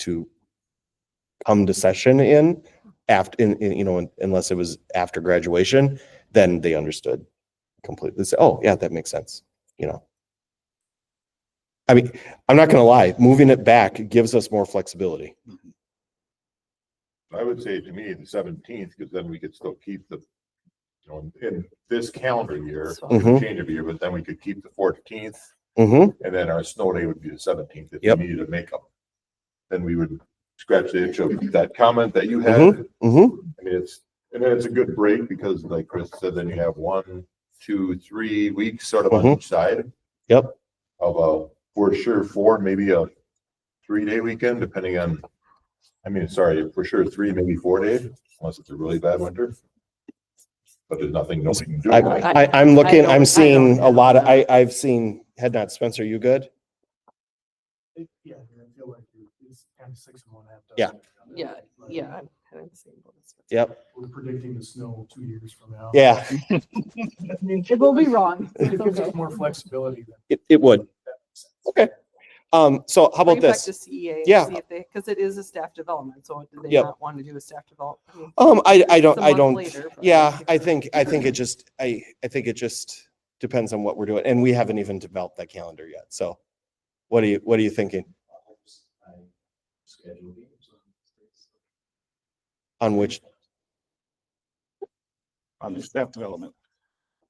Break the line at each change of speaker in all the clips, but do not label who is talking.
to come to session in after, in, in, you know, unless it was after graduation, then they understood completely. So, oh, yeah, that makes sense, you know? I mean, I'm not gonna lie, moving it back gives us more flexibility.
I would say to me, the seventeenth, because then we could still keep the, you know, in this calendar year,
Mhm.
change of year, but then we could keep the fourteenth.
Mm-hmm,
And then our snow day would be the seventeenth if we
Yep.
needed to make up. Then we would scratch the itch of that comment that you had. I
mm-hmm,
mean, it's, and then it's a good break because like Chris said, then you have one, two, three weeks sort of on
Mhm.
each side.
Yep.
Of a, for sure, four, maybe a three day weekend, depending on, I mean, sorry, for sure, three, maybe four days, unless it's a really bad winter. But there's nothing, nobody can do.
I,
right?
I, I'm looking,
don't- I
I'm seeing a
don't
lot of,
know.
I, I've seen, head nod, Spencer, you good?
It- Yeah, I feel like it- it's kind of six and one half. dozen.
Yeah.
Yeah, Yeah, I'm kind of the same. boat as-
Yep,
We're predicting the snow two years from now.
yeah,
It
It will be wrong. It's
gives
okay.
us more flexibility than.
it, it would. Okay, um, so how about
Bring it back
this?
to CEA and
Yeah.
see if they, because it is a staff development, so do they
Yep.
not want to do a staff development?
Um, I, I
It's
don't,
a
I
month
don't,
later, but-
yeah, I think, I think it just, I, I think it just depends on what we're doing, and we haven't even developed that calendar yet, so. What are you, what are you thinking? On which,
on the staff development.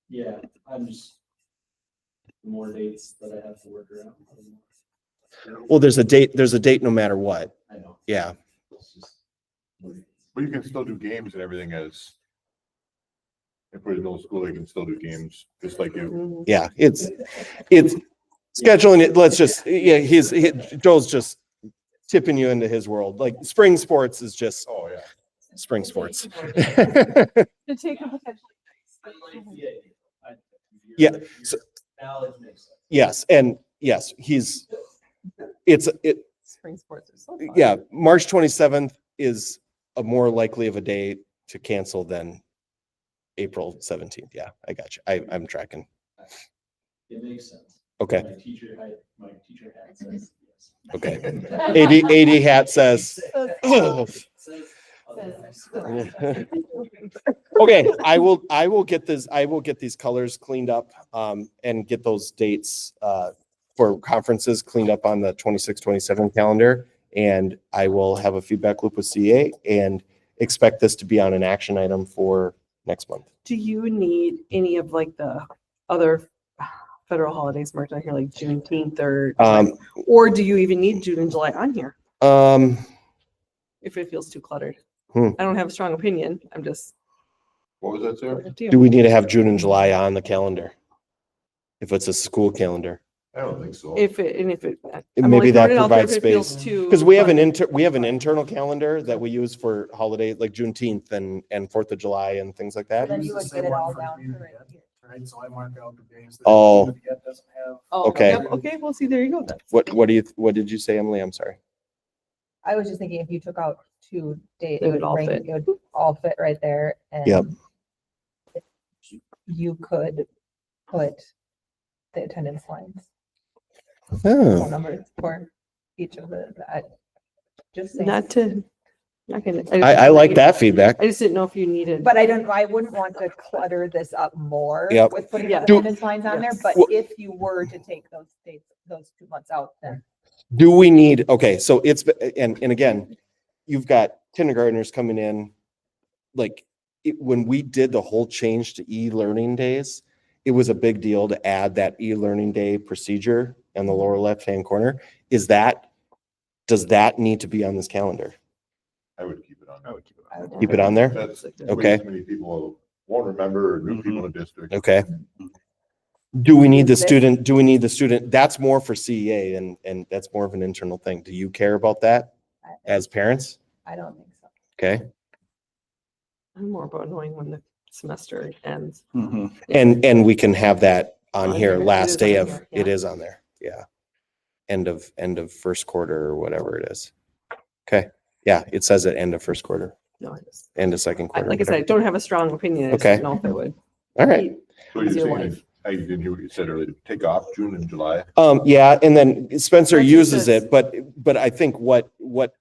Yeah, I'm just. the More dates that I have to work around. the more-
well, there's a date, there's a date no matter what,
I know.
yeah,
it's just-
But you can still do games and everything as. If we're in middle school, you can still do games, just like you.
yeah, it's, it's scheduling it, let's just, yeah, he's, he- Joel's just tipping you into his world, like spring sports is just
Oh, yeah.
spring sports.
To take a potential.
I
E
like the idea. I- your-
Yeah,
your
so-
Knowledge makes sense.
Yes, and yes, he's, it's, it,
Spring sports are so fun.
yeah, March twenty-seventh is a more likely of a day to cancel than April seventeenth. Yeah, I got you. I, I'm tracking.
It makes sense.
Okay,
My teacher, I, my teacher had says. yes.
okay. AD, AD hat says, oh,
Says otherwise.
okay, I will, I will get this, I will get these colors cleaned up, um, and get those dates, uh, for conferences cleaned up on the 26-27 calendar. And I will have a feedback loop with CA and expect this to be on an action item for next month.
Do you need any of like the other federal holidays marked on here, like Juneteenth or,
Um,
or do you even need June and July on here
um,
if it feels too cluttered?
Hmm.
I don't have a strong opinion. I'm just.
What was that, Sarah?
Do we need to have June and July on the calendar? If it's a school calendar,
I don't think so.
If it, and if it. I'm
maybe
only
that
throwing it out there if
provides
it feels
space.
too
because we have an
cluttered.
inter, we have an internal calendar that we use for holidays like Juneteenth and, and Fourth of July and things like
I
that.
use
you
the
would
same
get it
one
all
for
down
community
to right
ed, Right, so I mark out the days. that
Oh.
community ed Doesn't have.
Oh,
Okay.
Yep, Okay, well, see, there you go. then.
What, what do you, what did you say, Emily? I'm sorry.
I was just thinking if you took out two dates,
They would all fit.
It would all fit right there and.
Yep.
You could put the attendance lines, phone
Oh,
numbers for each of the, I- just saying.
Not to, not gonna.
I, I like that feedback.
I just didn't know if you needed.
But I don't, I wouldn't want to clutter this up more.
Yep.
With putting
Yeah.
the attendance lines on there,
Yes.
but
Well-
if you were to take those dates, those two months out, then.
Do we need, okay, so it's, and, and again, you've got kindergartners coming in. Like, it, when we did the whole change to e-learning days, it was a big deal to add that e-learning day procedure in the lower left-hand corner. Is that, does that need to be on this calendar?
I would keep it on.
I would keep it on.
Keep it on there?
That's
Like,
Okay. Mm-hmm.
way too many people won't remember or new people in the district.
Okay. Do we need the student, do we need the student, that's more for CEA and, and that's more of an internal thing. Do you care about that
I-
as parents?
I don't think so.
Okay.
I'm more about knowing when the semester ends.
Mhm.
And, and we can have that on
On
here,
here, Oh, it is
last day
on
of,
here,
it
yeah.
is on there, yeah. End of, end of first quarter or whatever it is. Okay, yeah, it says at end of first quarter,
No, I just,
end of second
I-
quarter.
like I said, I
whatever.
don't have a strong opinion. I just
Okay.
didn't know if it would.
All right,
So you're
Zero
saying
life.
if I didn't hear what you said earlier, take off June and July.
Um, yeah, and then Spencer
That's what it
uses
says.
it, but, but I think what, what